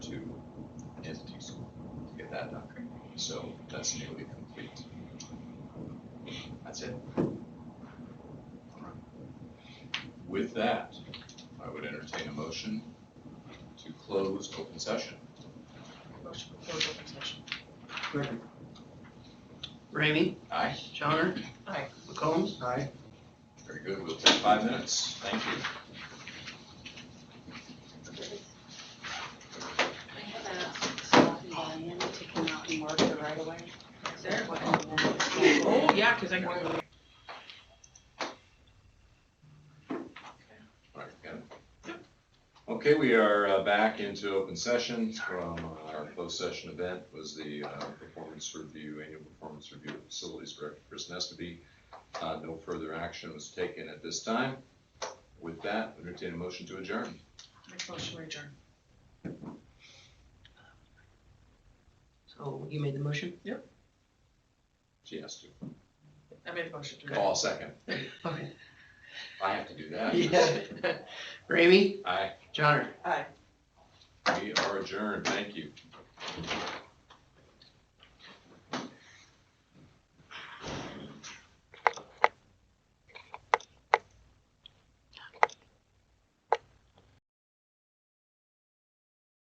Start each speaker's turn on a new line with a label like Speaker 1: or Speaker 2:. Speaker 1: that doctrine, so that's nearly complete. That's it.
Speaker 2: With that, I would entertain a motion to close open session.
Speaker 3: Motion to close open session.
Speaker 4: Ramey,
Speaker 2: Aye,
Speaker 4: Johnner.
Speaker 3: Aye.
Speaker 4: McCombs.
Speaker 1: Aye.
Speaker 2: very good, we'll take five minutes, thank you.
Speaker 5: I have asked Scott and Diane to come out and mark the right of way.
Speaker 3: Sarah, what?
Speaker 5: And then-
Speaker 3: Oh, yeah, because I can only.
Speaker 2: All right, got it? Okay, we are uh, back into open session from uh, our closed session event was the uh, performance review, annual performance review of facilities director Chris Nesterby. Uh, No further action was taken at this time. With that, entertain a motion to adjourn.
Speaker 3: Make a motion to adjourn.
Speaker 4: So you made the motion?
Speaker 2: She has to.
Speaker 3: I made the motion to adjourn.
Speaker 2: Call second.
Speaker 4: Okay.
Speaker 2: I have to do that.
Speaker 4: Yeah. Ramey,
Speaker 2: Aye.
Speaker 4: Johnner.
Speaker 3: Aye.
Speaker 2: We are adjourned. Thank you.